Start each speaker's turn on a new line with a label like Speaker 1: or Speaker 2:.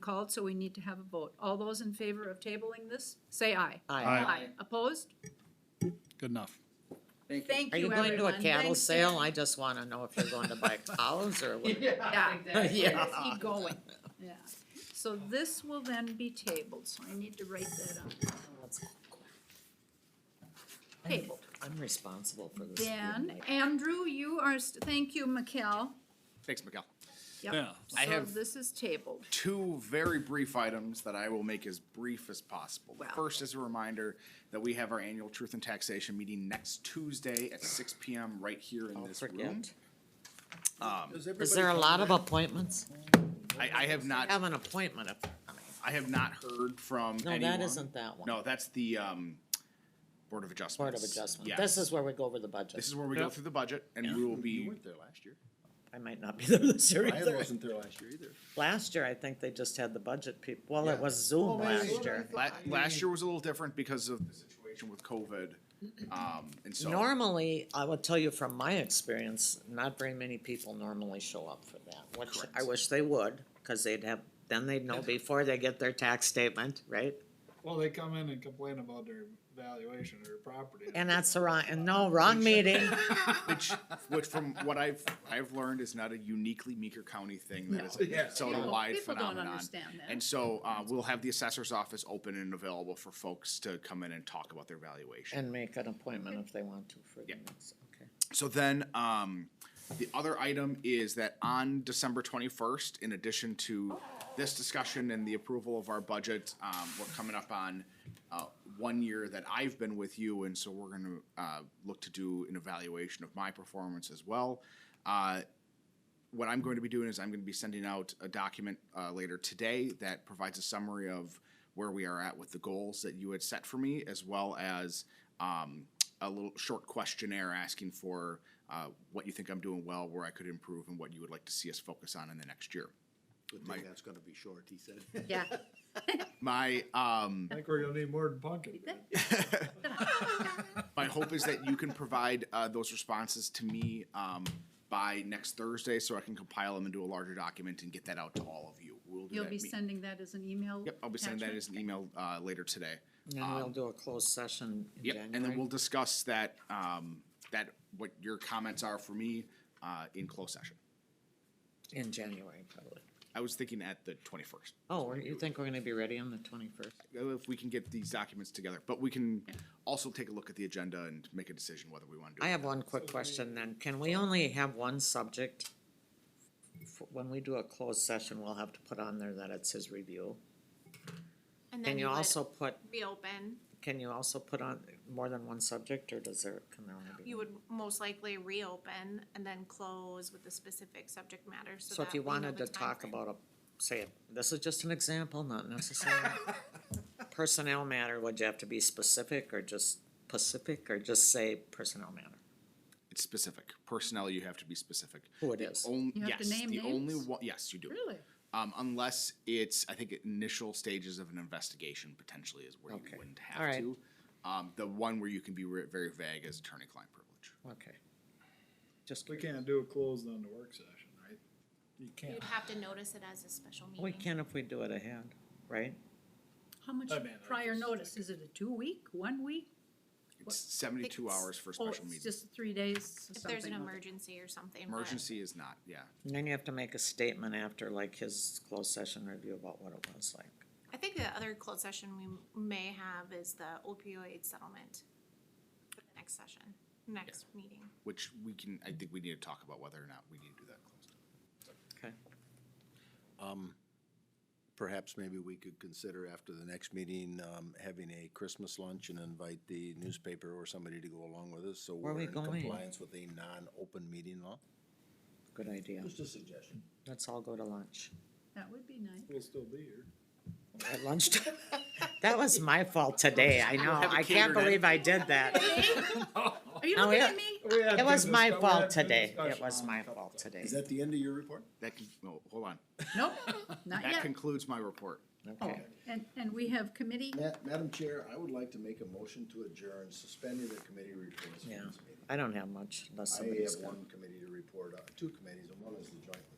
Speaker 1: called, so we need to have a vote. All those in favor of tabling this, say aye.
Speaker 2: Aye.
Speaker 1: Opposed?
Speaker 2: Good enough.
Speaker 3: Thank you.
Speaker 1: Thank
Speaker 4: Are
Speaker 1: you,
Speaker 4: you
Speaker 1: everyone.
Speaker 4: going to a cattle
Speaker 1: Thanks to-
Speaker 4: sale? I just wanna know if you're going to buy cows or what.
Speaker 1: Yeah.
Speaker 4: Yeah.
Speaker 1: Where's he going? Yeah. So this will then be tabled, so I need to write that up. Tabled.
Speaker 4: I'm responsible for this.
Speaker 1: Then, Andrew, you are, st- thank you, Mikkel.
Speaker 5: Thanks, Miguel.
Speaker 1: Yep.
Speaker 2: Yeah.
Speaker 5: I
Speaker 1: So
Speaker 5: have-
Speaker 1: this is tabled.
Speaker 5: Two very brief items that I will make as brief as possible. The
Speaker 1: Wow.
Speaker 5: First is a reminder that we have our annual Truth and Taxation meeting next Tuesday at six P M. right here in
Speaker 4: Don't
Speaker 5: this room.
Speaker 4: forget. Um, Is there a lot of appointments?
Speaker 5: I, I have not,
Speaker 4: Have an appointment. if-
Speaker 5: I have not heard from
Speaker 4: No,
Speaker 5: anyone.
Speaker 4: that isn't that one.
Speaker 5: No, that's the, um, Board of Adjustments.
Speaker 4: Board of Adjustment.
Speaker 5: Yes.
Speaker 4: This is where we go over the
Speaker 5: This
Speaker 4: budget.
Speaker 5: is where we go through the budget and we will be,
Speaker 6: there last year.
Speaker 4: I might not be there this year
Speaker 6: I
Speaker 4: either.
Speaker 6: wasn't there last year either.
Speaker 4: Last year, I think they just had the budget people. Well,
Speaker 6: Yeah.
Speaker 4: it was Zoom
Speaker 6: wait, wait,
Speaker 4: last
Speaker 6: wait.
Speaker 4: year.
Speaker 5: la- last year was a little different because of the situation with COVID. Um, and so.
Speaker 4: Normally, I will tell you from my experience, not very many people normally show up for that, which I
Speaker 5: Correct.
Speaker 4: wish they would, cause they'd have, then they'd know before they get their tax statement, right?
Speaker 7: Well, they come in and complain about their valuation of their property.
Speaker 4: And that's the wrong, and no, wrong meeting.
Speaker 5: Which, which from what I've, I've learned is not a uniquely Meeker County thing, that is
Speaker 6: No.
Speaker 5: a Minnesota-wide
Speaker 1: People don't
Speaker 5: phenomenon.
Speaker 1: understand that.
Speaker 5: And so, uh, we'll have the assessor's office open and available for folks to come in and talk about their valuation.
Speaker 4: And make an appointment if they want to for the
Speaker 5: Yeah.
Speaker 4: next, okay.
Speaker 5: So then, um, the other item is that on December twenty-first, in addition to this discussion and the approval of our budget, um, we're coming up on, uh, one year that I've been with you, and so we're gonna, uh, look to do an evaluation of my performance as well. Uh, what I'm going to be doing is I'm going to be sending out a document uh, later today that provides a summary of where we are at with the goals that you had set for me, as well as um, a little short questionnaire asking for uh, what you think I'm doing well, where I could improve, and what you would like to see us focus on in the next year.
Speaker 6: Good
Speaker 5: Mike.
Speaker 6: thing that's gonna be short, he said.
Speaker 1: Yeah.
Speaker 5: My um,
Speaker 7: I think we're gonna need more than pumpkin.
Speaker 5: my hope is that you can provide uh, those responses to me um, by next Thursday, so I can compile them into a larger document and get that out to all of you. We'll do
Speaker 1: You'll
Speaker 5: that
Speaker 1: be
Speaker 5: me-
Speaker 1: sending that as an email?
Speaker 5: Yep, I'll be sending that
Speaker 1: attachment?
Speaker 5: as an email uh, later today.
Speaker 4: And we'll do a closed session in
Speaker 5: Yep, and then we'll
Speaker 4: Um, January.
Speaker 5: discuss that, um, that, what your comments are for me, uh, in closed session.
Speaker 4: In January, probably.
Speaker 5: I was thinking at the twenty-first, uh,
Speaker 4: Oh, or you think we're gonna be ready on the twenty-first?
Speaker 5: if we can get these documents together, but we can also take a look at the agenda and make a decision whether we want to do it.
Speaker 4: I have one quick question then. Can we only have one subject? F- When we do a closed session, we'll have to put on there that it's his review. Can
Speaker 8: And then
Speaker 4: you
Speaker 8: would
Speaker 4: also put,
Speaker 8: Be open,
Speaker 4: can you also put on more than one subject or does there, can there only be?
Speaker 8: you
Speaker 4: one?
Speaker 8: would most likely reopen and then close with the specific subject matter, so
Speaker 4: So if
Speaker 8: that
Speaker 4: you
Speaker 8: we know
Speaker 4: wanted
Speaker 8: the
Speaker 4: to talk
Speaker 8: timeframe.
Speaker 4: about a, say, this is just an example, not necessarily personnel matter, would you have to be specific or just specific or just say personnel matter?
Speaker 5: It's specific, personnel, you have to be specific.
Speaker 4: Who it is?
Speaker 5: Only,
Speaker 1: You have
Speaker 5: yes,
Speaker 1: to name
Speaker 5: the only
Speaker 1: names?
Speaker 5: one, yes, you do.
Speaker 1: Really?
Speaker 5: Um, unless it's, I think, initial stages of an investigation potentially is where you
Speaker 4: Okay.
Speaker 5: wouldn't
Speaker 4: All
Speaker 5: have
Speaker 4: right.
Speaker 5: to. Um, the one where you can be re- very vague is attorney-client privilege.
Speaker 4: Okay. Just,
Speaker 7: We can't do a closed on the work session, right? You can't.
Speaker 8: You'd have to notice it as a special meeting.
Speaker 4: we can if we do it ahead, right?
Speaker 1: How much
Speaker 7: I mean, I
Speaker 1: prior
Speaker 7: just-
Speaker 1: notice? Is it a two-week, one-week?
Speaker 5: It's seventy-two
Speaker 8: It's-
Speaker 5: hours for a
Speaker 1: Oh, it's
Speaker 5: special meeting.
Speaker 1: just three days,
Speaker 8: If there's
Speaker 1: something
Speaker 8: an
Speaker 1: like-
Speaker 8: emergency or something. but-
Speaker 5: Emergency is not, yeah.
Speaker 4: And then you have to make a statement after like his closed session review about what it was like.
Speaker 8: I think the other closed session we m- may have is the opioid settlement. for the Next session, next meeting.
Speaker 5: which we can, I think we need to talk about whether or not we need to do that closed.
Speaker 4: Okay.
Speaker 6: Perhaps maybe we could consider after the next meeting, um, having a Christmas lunch and invite the newspaper or somebody to go along with us, so
Speaker 4: Where
Speaker 6: we're
Speaker 4: we
Speaker 6: in
Speaker 4: going?
Speaker 6: compliance with a non-open meeting law.
Speaker 4: Good idea.
Speaker 6: Just a suggestion.
Speaker 4: Let's all go to lunch.
Speaker 1: That would be nice.
Speaker 7: We'll still be here.
Speaker 4: At lunchtime. That was my fault today. I know.
Speaker 5: have it
Speaker 4: I can't
Speaker 5: catered in.
Speaker 4: believe I did that.
Speaker 1: Are you
Speaker 4: Oh,
Speaker 1: looking
Speaker 4: yeah.
Speaker 1: at me?
Speaker 7: We had
Speaker 4: It was
Speaker 7: good
Speaker 4: my
Speaker 7: discuss- we had
Speaker 4: fault
Speaker 7: good
Speaker 4: today. It
Speaker 7: discussion
Speaker 4: was
Speaker 7: on
Speaker 4: my
Speaker 7: a couple
Speaker 4: fault
Speaker 7: things.
Speaker 4: today.
Speaker 6: Is that the end of your report?
Speaker 5: That can, no, hold on.
Speaker 1: Nope, not
Speaker 5: That
Speaker 1: yet.
Speaker 5: concludes my report.
Speaker 4: Okay.
Speaker 1: And, and we have committee,
Speaker 6: Ma- Madam Chair, I would like to make a motion to adjourn, suspending the committee reports. from
Speaker 4: Yeah.
Speaker 6: this meeting.
Speaker 4: I don't have much unless
Speaker 6: I
Speaker 4: somebody's
Speaker 6: have
Speaker 4: got.
Speaker 6: one committee to report, on- two uh, committees, and one is the joint